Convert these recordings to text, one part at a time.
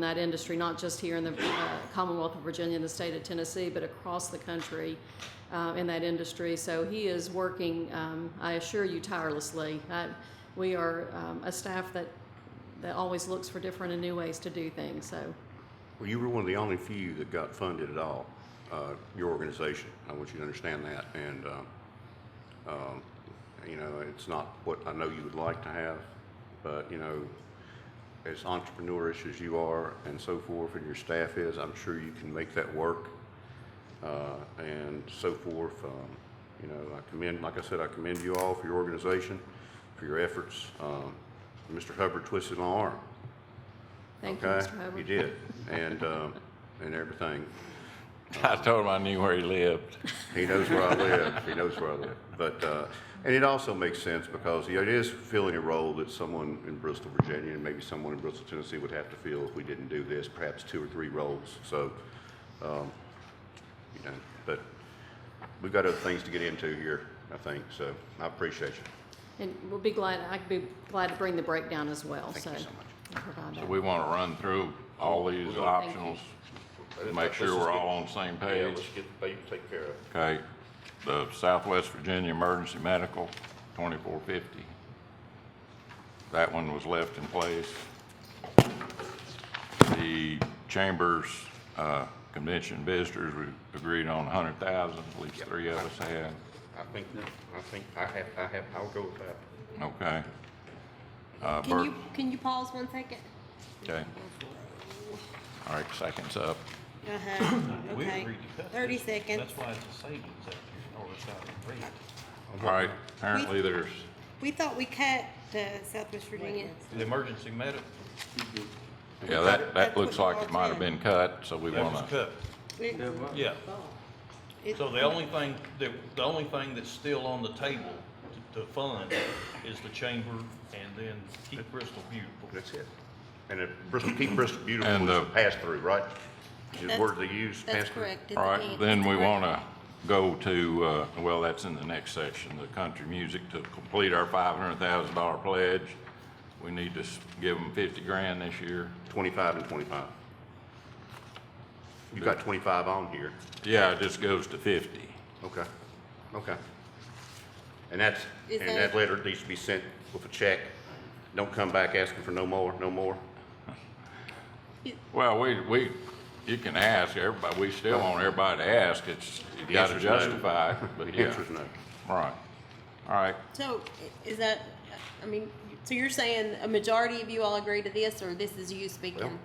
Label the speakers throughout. Speaker 1: in that industry, not just here in the uh, Commonwealth of Virginia and the state of Tennessee, but across the country uh, in that industry. So he is working, um, I assure you, tirelessly. I, we are um, a staff that, that always looks for different and new ways to do things. So
Speaker 2: Well, you were one of the only few that got funded at all, uh, your organization. I want you to understand that. And, um, um, you know, it's not what I know you would like to have, but, you know, as entrepreneurish as you are and so forth, and your staff is, I'm sure you can make that work uh, and so forth. Um, you know, I commend, like I said, I commend you all for your organization, for your efforts. Um, Mr. Hubbard twisted my arm.
Speaker 1: thank you,
Speaker 2: Okay,
Speaker 1: Mr. Hubbard.
Speaker 2: You did, and, um, and everything.
Speaker 3: I told him I knew where he lived.
Speaker 2: He knows where I live, he knows where I live. But, uh, and it also makes sense because you know, it is filling a role that someone in Bristol, Virginia, and maybe someone in Bristol, Tennessee would have to fill if we didn't do this, perhaps two or three roles. So, um, you know, but we've got other things to get into here, I think, so I appreciate you.
Speaker 1: And we'll be glad, I'd be glad to bring the breakdown as well.
Speaker 2: Thank
Speaker 1: so
Speaker 2: you so much.
Speaker 1: I'll provide
Speaker 3: So
Speaker 1: that.
Speaker 3: we want to run through all these
Speaker 1: Thank
Speaker 3: optionals,
Speaker 2: you.
Speaker 3: make sure we're all on the same
Speaker 2: Yeah,
Speaker 3: page.
Speaker 2: let's get the baby taken care of.
Speaker 3: Okay, the Southwest Virginia Emergency Medical, twenty-four fifty. That one was left in place. The Chambers uh, Convention Visitors, we agreed on a hundred thousand, at least three of us had.
Speaker 2: I think, I think, I have, I have, I'll go with that.
Speaker 3: Okay. Uh,
Speaker 4: Can
Speaker 3: Bert-
Speaker 4: you, can you pause one second?
Speaker 3: Okay. All right, seconds up.
Speaker 4: Uh-huh,
Speaker 5: We
Speaker 4: okay.
Speaker 5: agreed to cut
Speaker 4: Thirty
Speaker 5: this.
Speaker 4: seconds.
Speaker 5: That's why it's a savings out here, or it's out of rate.
Speaker 3: All right, apparently there's,
Speaker 4: We thought we cut the Southwest Virginia.
Speaker 5: The emergency medical,
Speaker 3: yeah, that, that looks like it might have been cut, so we
Speaker 5: that was
Speaker 3: want to,
Speaker 5: cut,
Speaker 4: It- oh,
Speaker 5: yeah.
Speaker 4: it-
Speaker 5: So the only thing, the, the only thing that's still on the table to, to fund is the chamber and then keep Bristol beautiful.
Speaker 2: That's it. And if Bristol, keep Bristol beautiful
Speaker 3: And,
Speaker 2: is
Speaker 3: uh,
Speaker 2: a pass-through, right? Is
Speaker 4: That's-
Speaker 2: word they use,
Speaker 4: That's
Speaker 2: pass-through?
Speaker 4: correct.
Speaker 3: all right, then we want to go to, uh, well, that's in the next section, the country music to complete our five hundred thousand dollar pledge. We need to s- give them fifty grand this year.
Speaker 2: Twenty-five and twenty-five. You got twenty-five on here.
Speaker 3: Yeah, it just goes to fifty.
Speaker 2: Okay, okay. And that's,
Speaker 4: Is
Speaker 2: and
Speaker 4: that-
Speaker 2: that letter needs to be sent with a check. Don't come back asking for no more, no more.
Speaker 3: Well, we, we, you can ask everybody, we still want everybody to ask, it's, you
Speaker 2: The
Speaker 3: got to
Speaker 2: answer's no.
Speaker 3: justify,
Speaker 2: The
Speaker 3: but yeah,
Speaker 2: answer's no.
Speaker 3: right. All right,
Speaker 4: So i- is that, I mean, so you're saying a majority of you all agree to this, or this is you speaking?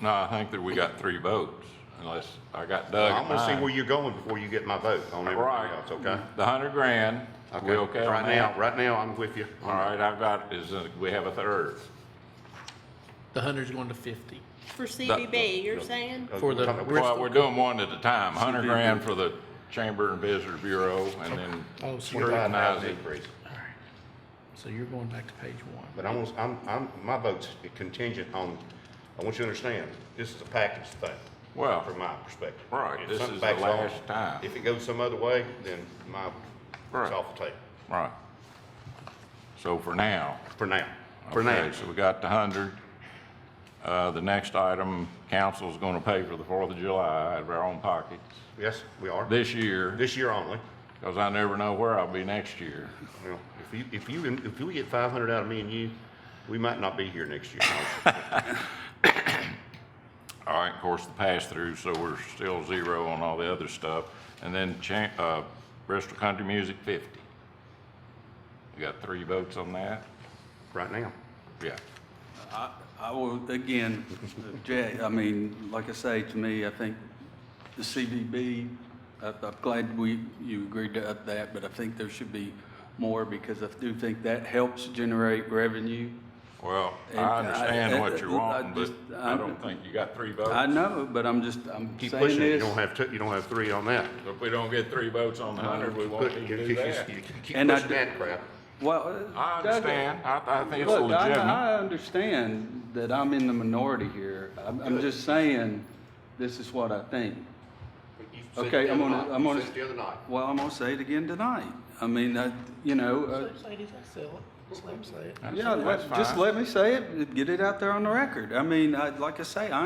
Speaker 3: No, I think that we got three votes, unless I got Doug.
Speaker 2: I'm gonna see
Speaker 3: mine.
Speaker 2: where you're going before you get my vote on
Speaker 3: Right.
Speaker 2: everything else, okay?
Speaker 3: The hundred grand, we okay on
Speaker 2: Right now,
Speaker 3: that?
Speaker 2: right now, I'm with you.
Speaker 3: All right, I've got, is, uh, we have a third.
Speaker 6: The hundred's going to fifty.
Speaker 4: For CBB, you're saying?
Speaker 2: Uh,
Speaker 6: For the
Speaker 2: we're talking about-
Speaker 3: Well,
Speaker 6: Bristol-
Speaker 3: we're doing one at a time, hundred grand for the Chamber and Visitor Bureau, and then
Speaker 6: Oh, so you're,
Speaker 3: Twenty-five.
Speaker 2: $25,000 increase.
Speaker 6: so you're going back to page one.
Speaker 2: But I'm, I'm, I'm, my vote's contingent on, I want you to understand, this is a package thing.
Speaker 3: Well,
Speaker 2: From my perspective.
Speaker 3: right,
Speaker 2: If
Speaker 3: this
Speaker 2: something
Speaker 3: is the
Speaker 2: backs off,
Speaker 3: last time.
Speaker 2: If it goes some other way, then my,
Speaker 3: Right.
Speaker 2: it's off the table,
Speaker 3: right. So for now.
Speaker 2: for now, for now.
Speaker 3: Okay, so we got the hundred. Uh, the next item, council's gonna pay for the Fourth of July out of our own pockets
Speaker 2: Yes, we are,
Speaker 3: this year,
Speaker 2: this year only.
Speaker 3: because I never know where I'll be next year.
Speaker 2: Well, If you, if you, if you get five hundred out of me and you, we might not be here next year.
Speaker 3: All right, of course, the pass-through, so we're still zero on all the other stuff. And then cha, uh, Bristol Country Music fifty. We got three votes on that?
Speaker 2: right now.
Speaker 3: Yeah.
Speaker 7: I I will, again, Jay, I mean, like I say, to me, I think the CVB, I- I'm glad we, you agreed to up that, but I think there should be more because I do think that helps generate revenue.
Speaker 3: Well,
Speaker 7: And
Speaker 3: I
Speaker 7: I-
Speaker 3: understand what you're
Speaker 7: I- I
Speaker 3: wanting, but
Speaker 7: just-
Speaker 3: I
Speaker 7: I-
Speaker 3: don't think you got three
Speaker 7: I
Speaker 3: votes.
Speaker 7: know, but I'm just, I'm
Speaker 2: Keep
Speaker 7: saying
Speaker 2: pushing it, you
Speaker 7: this.
Speaker 2: don't have two, you don't have three on that.
Speaker 3: If we don't get three votes on the hundred, we
Speaker 2: But
Speaker 3: won't
Speaker 2: you
Speaker 3: need to do
Speaker 2: keep- you
Speaker 3: that.
Speaker 2: Keep pushing
Speaker 7: And I do-
Speaker 2: that crap.
Speaker 7: Well.
Speaker 3: I
Speaker 7: Doug,
Speaker 3: understand, I, I think it's
Speaker 7: Look, I,
Speaker 3: legitimate.
Speaker 7: I understand that I'm in the minority here. I'm, I'm just saying, this is what I think.
Speaker 2: But you said
Speaker 7: Okay,
Speaker 2: the
Speaker 7: I'm
Speaker 2: other
Speaker 7: gonna,
Speaker 2: night,
Speaker 7: I'm
Speaker 2: you
Speaker 7: gonna.
Speaker 2: said The other night.
Speaker 7: Well, I'm gonna say it again tonight. I mean, I, you know, uh,
Speaker 6: Ladies, I sell it. Just let 'em say it.
Speaker 3: That's-
Speaker 7: yeah,
Speaker 3: that's
Speaker 7: let- just
Speaker 3: fine.
Speaker 7: let me say it, get it out there on the record. I mean, I, like I say, I